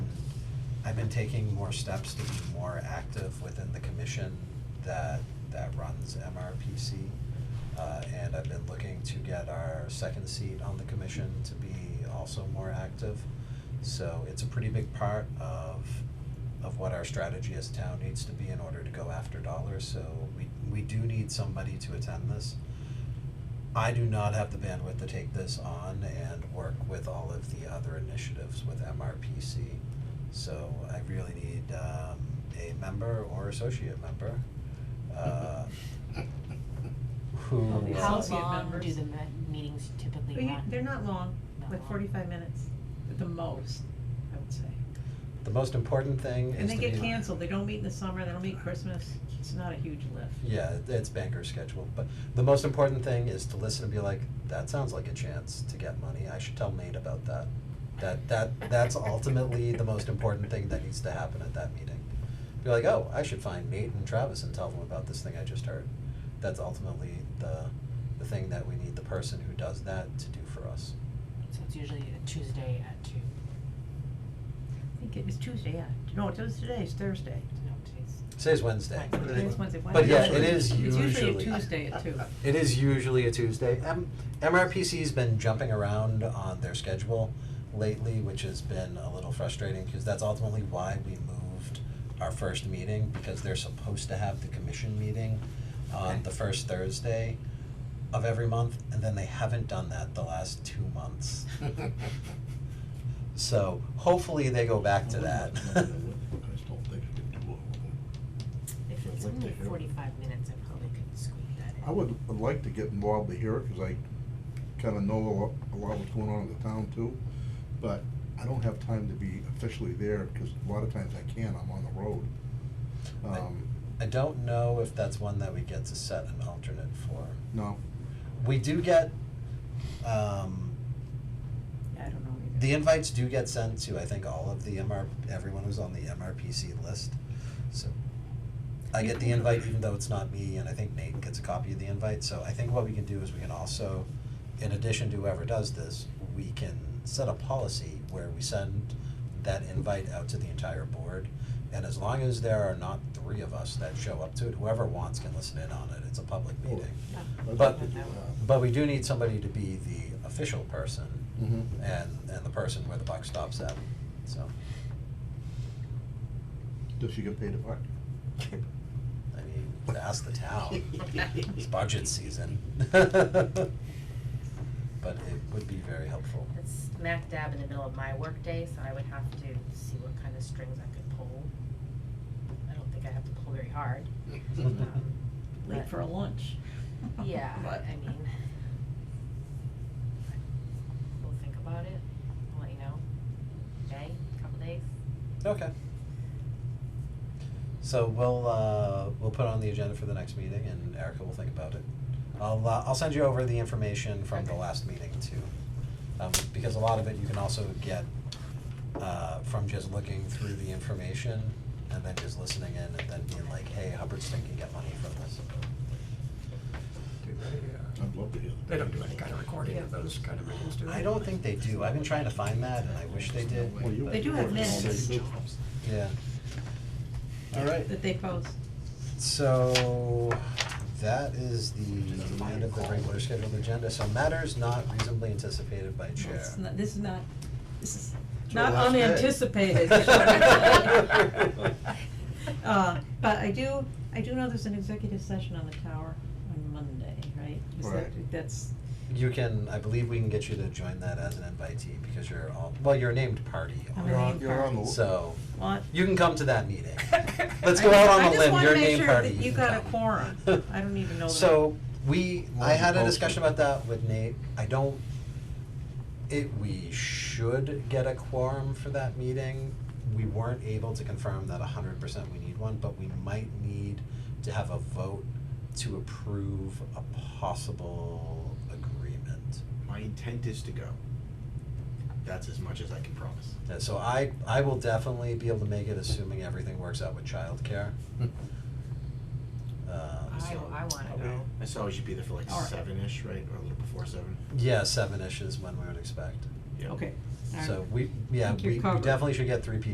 I've been taking more steps to be more active within the commission that, that runs MRPC. Uh, and I've been looking to get our second seat on the commission to be also more active. So it's a pretty big part of, of what our strategy as town needs to be in order to go after dollars, so we, we do need somebody to attend this. I do not have the bandwidth to take this on and work with all of the other initiatives with MRPC. So I really need um a member or associate member, uh, who. Well, the uh, How How associate long do members. the me- meetings typically But you- run? They're not long, Not like long. forty-five minutes at the most, I would say. The most important thing And is they to get be- canceled, they don't meet in the summer, they don't meet Christmas, it's not a huge lift. Yeah, it- it's banker schedule, but the most important thing is to listen and be like, that sounds like a chance to get money, I should tell Nate about that. That, that, that's ultimately the most important thing that needs to happen at that meeting. Be like, oh, I should find Nate and Travis and tell them about this thing I just heard. That's ultimately the, the thing that we need the person who does that to do for us. So it's usually a Tuesday at two, I think it was Tuesday, yeah, no, it was today, it's Thursday. no, today's. Today's Wednesday. Wednesday. Today's Wednesday, But yeah, it Wednesday. is It's usually usually. a Tuesday at two. It is usually a Tuesday. M- MRPC's been jumping around on their schedule lately, which has been a little frustrating, because that's ultimately why we moved our first meeting, because they're supposed to have the commission meeting on Okay. the first Thursday of every month, and then they haven't done that the last two months. So hopefully they go back to that. I still think you could do it. If I'd it's like to only hear. forty-five minutes, I probably could squeak that in. I would, I'd like to get involved to hear it, cause I kinda know a lot, a lot what's going on in the town too. But I don't have time to be officially there, cause a lot of times I can't, I'm on the road. I- Um, I don't know if that's one that we get to set an alternate for. no, We do get, um, I don't know either. The invites do get sent to, I think, all of the MR, everyone who's on the MRPC list, so. I get the invite even though it's not me, and I think Nate gets a copy of the invite, so I think what we can do is we can also, in addition to whoever does this, we can set a policy where we send that invite out to the entire board. And as long as there are not three of us that show up to it, whoever wants can listen in on it, it's a public meeting. Oh, I'd But- like to do that. But we do need somebody to be the official person, Mm-hmm. and, and the person where the buck stops at, so, Does she get paid a buck? I mean, ask the town, it's budget season. But it would be very helpful. It's smack dab in the middle of my workday, so I would have to see what kind of strings I could pull. I don't think I have to pull very hard. Um, Late but- for a lunch. Yeah, But- I mean. We'll think about it, I'll let you know. Okay, couple days. Okay. So we'll, uh, we'll put it on the agenda for the next meeting, and Erica will think about it. I'll, uh, I'll send you over the information from the Okay. last meeting too, um, because a lot of it you can also get, uh, from just looking through the information and then just listening in and then being like, hey, Hubbardston can get money from this. Do they, uh, I'd love to hear that. they don't do any kind of recording of those kind of meetings, do they? I don't think they do, I've been trying to find that and I wish they did. Well, you- but- They do have minutes. Yeah. All right. That they post. So that is the end of the regular scheduled agenda, so matters not reasonably anticipated by chair. It's not, this is not, this is It's your not last day. unanticipated. Uh, but I do, I do know there's an executive session on the tower on Monday, right? Is that- Right. That's, You can, I believe we can get you to join that as an invitee because you're all, well, you're a named party. I'm You're a on, name you're on the. So what? you can come to that meeting. Let's go out on a limb, you're a named party. I just wanna make sure that you can got a come. quorum, I don't even know that. So, we, I had a Multicultural. discussion about that with Nate, I don't, it, we should get a quorum for that meeting. We weren't able to confirm that hundred percent we need one, but we might need to have a vote to approve a possible agreement. My intent is to go. That's as much as I can promise. Yeah, so I, I will definitely be able to make it, assuming everything works out with childcare. Um, I, so- I wanna go. I saw we should be there for like All right. seven-ish, right, or a little before seven? Yeah, seven-ish is when we would expect. Yeah. Okay, all right. So we, yeah, Think we you're we covered. definitely should get three people